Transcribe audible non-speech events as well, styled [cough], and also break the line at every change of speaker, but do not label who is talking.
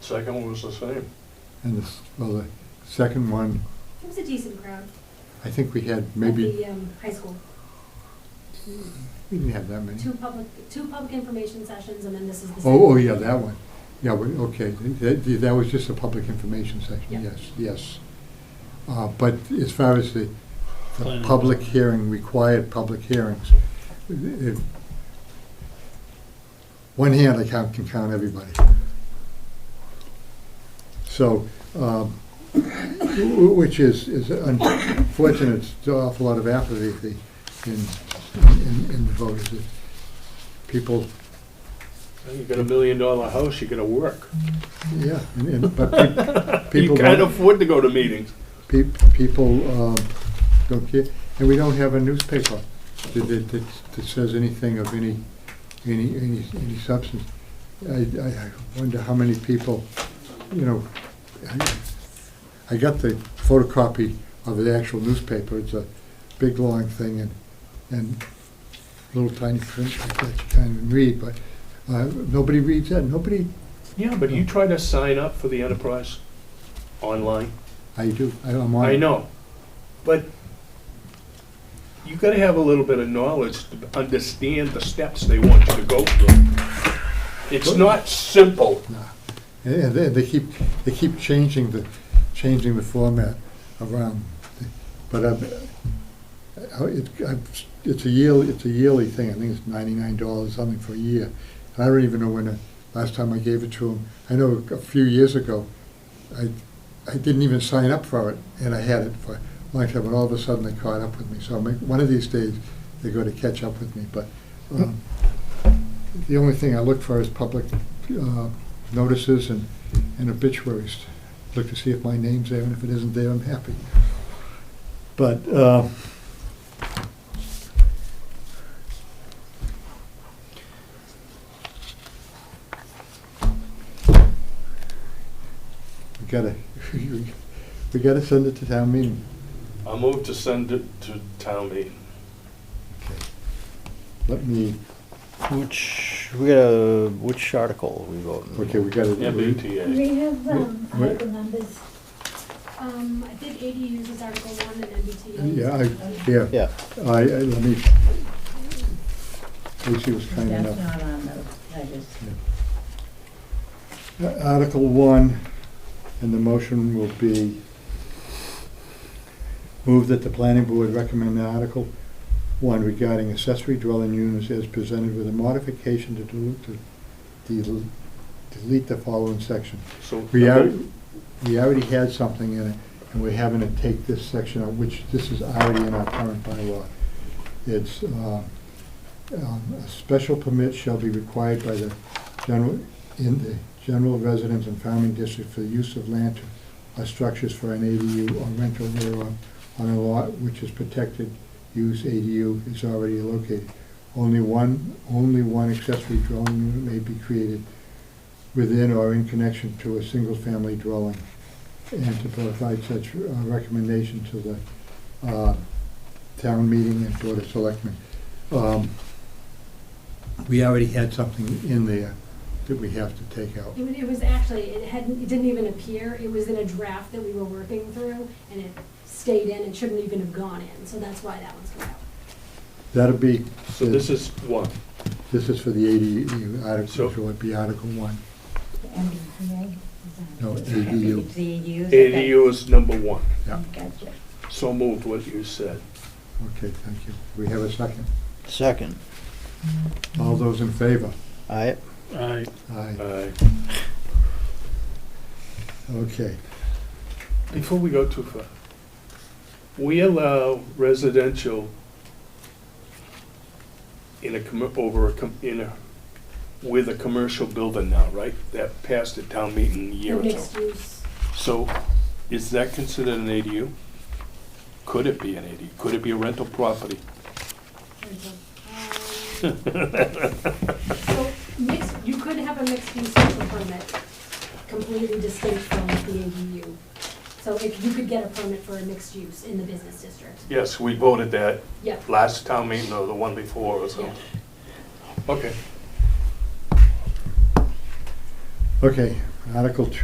Second one was the same.
And the, s- well, the second one,
It was a decent crowd.
I think we had
At
maybe,
the um, high school.
we didn't have that many.
Two public, two public information sessions, and then this is the second.
Oh, oh, yeah, that one. Yeah, we- okay, that, that was just a public information
Yeah.
section, yes, yes. Uh, but as far as the, the
Planning
public
board.
hearing, required public hearings, if, one hand I count, can count everybody. So, um, wh- which is, is unfortunate, it's an awful lot of apathy in, in, in the voters. People
You got a million dollar house, you gotta work.
Yeah, and, and,
[laughs]
but pe-
You
people,
can't
don't-
afford to go to meetings.
pe- people, um, don't care, and we don't have a newspaper that, that, that that says anything of any, any, any, any substance. I, I I wonder how many people, you know, I, I got the photocopy of the actual newspaper, it's a big, long thing, and, and little tiny print like that you can't even read, but, uh, nobody reads that, nobody,
Yeah, but you try to sign up for the enterprise online.
I do, I- I'm on.
I know, but you gotta have a little bit of knowledge to understand the steps they want you to go through. It's not simple.
No. And- And they, they keep, they keep changing the, changing the format around. But I'm, I- it, I'm- it's a yearly, it's a yearly thing. I think it's ninety-nine dollars something for a year. And I don't even know when the last time I gave it to them. I know a few years ago, I, I didn't even sign up for it and I had it for a long time. And all of a sudden they caught up with me. So I'm- one of these days, they're going to catch up with me. But um, the only thing I look for is public uh, notices and, and obituaries. Look to see if my name's there, and if it isn't there, I'm happy. But, uh, we gotta, [laughs] we gotta send it to town meeting.
I move to send it to town meeting.
Let me,
Which, we got a, which article we voting?
okay, we gotta.
MBTA.
We have, um,
Wait, wait.
article numbers.
Um, I think ADUs is Article One and MBTA.
Uh, Yeah, I, yeah.
Yeah,
I, I, let me, Lucy was kind
That's
enough.
not on those, I just,
Uh, Article one, and the motion will be, move that the planning board recommend the article one regarding accessory dwelling units as presented with a modification to delete, to del- delete the following section.
So
We already, we already had something in it, and we're having to take this section out, which this is already in our current bylaw. It's, uh, um, a special permit shall be required by the general, in the general residence and farming district for the use of land or structures for an ADU or rental thereof on a lot which is protected use ADU is already located. Only one, only one accessory dwelling unit may be created within or in connection to a single-family dwelling, and to provide such uh, recommendation to the uh, town meeting and board of selectmen. Um, We already had something in there that we have to take out.
It was, it was actually, it hadn't, it didn't even appear, it was in a draft that we were working through, and it stayed in, and shouldn't even have gone in, so that's why that one's going out.
That'll be,
So this is one.
this is for the ADU
So-
article, so it'd be Article One.
the MBTA.
um,
No, ADU.
It's the ADU. okay.
ADU is number one.
Yeah,
Gotcha.
So moved what you said.
okay, thank you. We have a second.
second.
All those in favor?
Aye.
Aye.
Aye,
Aye.
okay.
Before we go too far, we allow residential in a, commer- over a, com- in a, with a commercial building now, right? That passed at town meeting a year
The
ago.
Mixed use,
So is that considered an ADU? Could it be an ADU? Could it be a rental property? [laughs]
rental. Um, So, mixed, you could have a mixed use special permit, completely distinct from the ADU. So if you could get a permit for a mixed use in the business district,
Yes, we voted that
yeah.
last town meeting or the one before or so.
Yeah.
Okay.
Okay, Article Two.